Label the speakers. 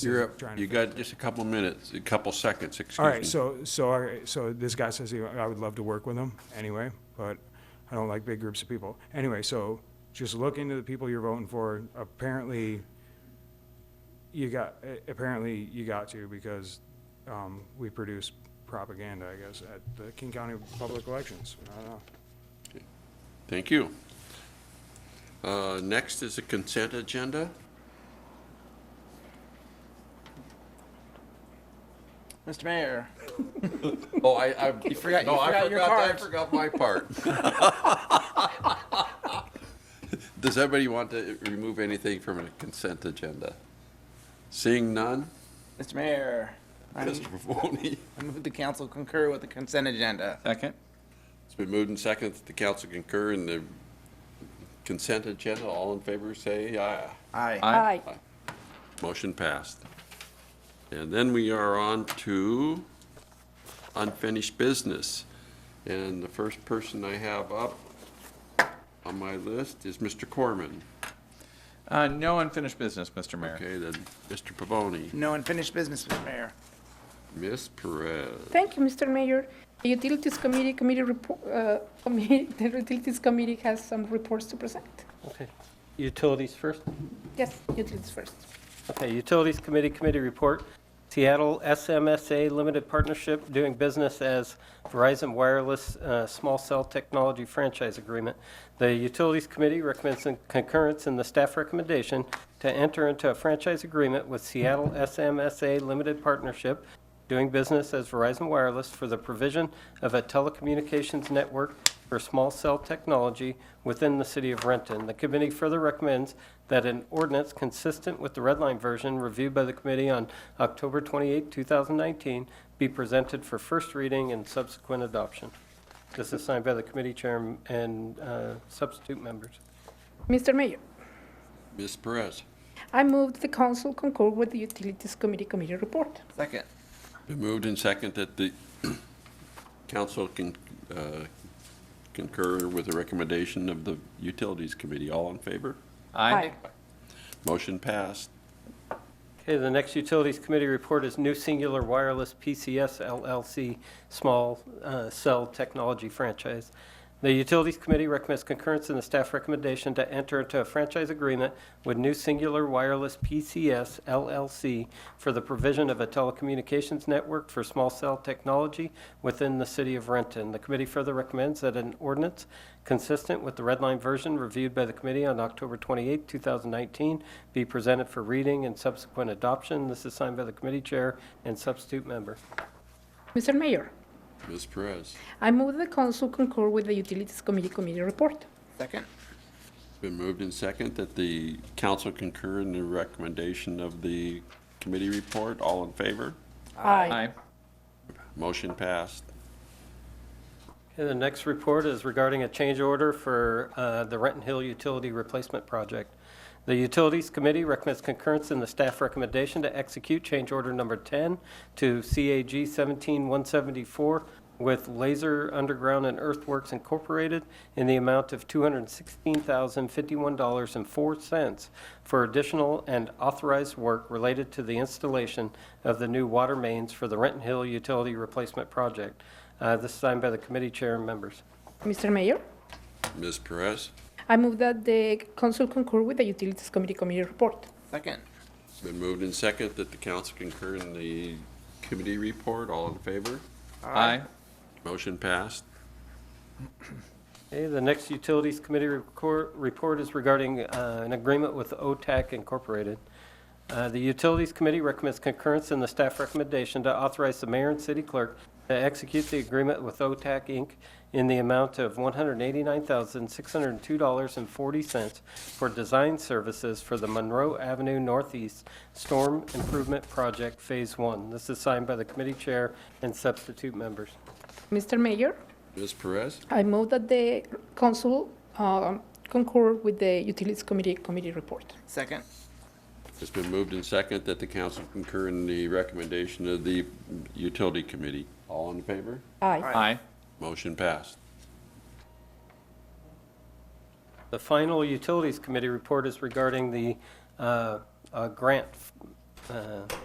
Speaker 1: You're up.
Speaker 2: trying to
Speaker 1: You got just a couple minutes, a couple seconds, excuse me.
Speaker 2: All right, so, so, our- so this guy says he- I would love to work with him anyway, but I don't like big groups of people. Anyway, so just look into the people you're voting for. Apparently, you got, a- apparently you got to because um, we produce propaganda, I guess, at the King County Public Elections. I don't know.
Speaker 1: Thank you. Uh, Next is the consent agenda.
Speaker 3: Mr. Mayor,
Speaker 1: Oh, I, I.
Speaker 3: You forgot-
Speaker 1: No,
Speaker 3: you
Speaker 1: I
Speaker 3: forgot your
Speaker 1: forgot, I
Speaker 3: cards.
Speaker 1: forgot my part. Does everybody want to remove anything from a consent agenda? Seeing none?
Speaker 3: Mr. Mayor, I
Speaker 1: Mr. Mahoney?
Speaker 3: I move the council concur with the consent agenda.
Speaker 4: Second?
Speaker 1: It's been moved and seconded that the council concur in the consent agenda. All in favor, say aye.
Speaker 3: Aye.
Speaker 4: Aye.
Speaker 5: Aye.
Speaker 1: Motion passed. And then we are on to unfinished business. And the first person I have up on my list is Mr. Corman.
Speaker 4: Uh, no unfinished business, Mr. Mayor.
Speaker 1: Okay, then Mr. Pavoni,
Speaker 3: No unfinished business, Mr. Mayor.
Speaker 1: Ms. Perez.
Speaker 5: Thank you, Mr. Mayor. The Utilities Committee, committee report, uh, committee, the Utilities Committee has some reports to present.
Speaker 6: Okay. Utilities first?
Speaker 5: Yes, utilities first.
Speaker 6: Okay, Utilities Committee Committee Report. Seattle SMSA Limited Partnership doing business as Verizon Wireless uh, Small Cell Technology Franchise Agreement. The Utilities Committee recommends in- concurrence in the staff recommendation to enter into a franchise agreement with Seattle SMSA Limited Partnership doing business as Verizon Wireless for the provision of a telecommunications network for small cell technology within the city of Renton. The committee further recommends that an ordinance consistent with the red line version reviewed by the committee on October 28, 2019, be presented for first reading and subsequent adoption. This is signed by the committee chair and uh, substitute members.
Speaker 5: Mr. Mayor,
Speaker 1: Ms. Perez.
Speaker 5: I move the council concur with the Utilities Committee committee report.
Speaker 3: Second.
Speaker 1: Been moved and second that the council can uh, concur with the recommendation of the Utilities Committee. All in favor?
Speaker 4: Aye.
Speaker 1: Motion passed.
Speaker 6: Okay, the next Utilities Committee report is New Singular Wireless PCS LLC Small uh, Cell Technology Franchise. The Utilities Committee recommends concurrence in the staff recommendation to enter into a franchise agreement with New Singular Wireless PCS LLC for the provision of a telecommunications network for small cell technology within the city of Renton. The committee further recommends that an ordinance consistent with the red line version reviewed by the committee on October 28, 2019, be presented for reading and subsequent adoption. This is signed by the committee chair and substitute member.
Speaker 5: Mr. Mayor,
Speaker 1: Ms. Perez.
Speaker 5: I move the council concur with the Utilities Committee committee report.
Speaker 3: Second.
Speaker 1: Been moved in second that the council concur in the recommendation of the committee report. All in favor?
Speaker 4: Aye.
Speaker 1: Motion passed.
Speaker 6: Okay, the next report is regarding a change order for uh, the Renton Hill Utility Replacement Project. The Utilities Committee recommends concurrence in the staff recommendation to execute change order number 10 to CAG 17174 with Laser Underground and Earthworks Incorporated in the amount of $216,051.04 for additional and authorized work related to the installation of the new water mains for the Renton Hill Utility Replacement Project. Uh, This is signed by the committee chair and members.
Speaker 5: Mr. Mayor,
Speaker 1: Ms. Perez.
Speaker 5: I move that the council concur with the Utilities Committee committee report.
Speaker 3: Second.
Speaker 1: It's been moved in second that the council concur in the committee report. All in favor?
Speaker 4: Aye.
Speaker 1: Motion passed.
Speaker 6: Okay, the next Utilities Committee recor- report is regarding uh, an agreement with OTAC Incorporated. Uh, The Utilities Committee recommends concurrence in the staff recommendation to authorize the mayor and city clerk to execute the agreement with OTAC Inc. in the amount of $189,602.40 for design services for the Monroe Avenue Northeast Storm Improvement Project Phase One. This is signed by the committee chair and substitute members.
Speaker 5: Mr. Mayor,
Speaker 1: Ms. Perez.
Speaker 5: I move that the council um, concur with the Utilities Committee committee report.
Speaker 3: Second.
Speaker 1: It's been moved in second that the council concur in the recommendation of the utility committee. All in favor?
Speaker 5: Aye.
Speaker 4: Aye.
Speaker 1: Motion passed.
Speaker 6: The final Utilities Committee report is regarding the uh, uh, grant f- uh,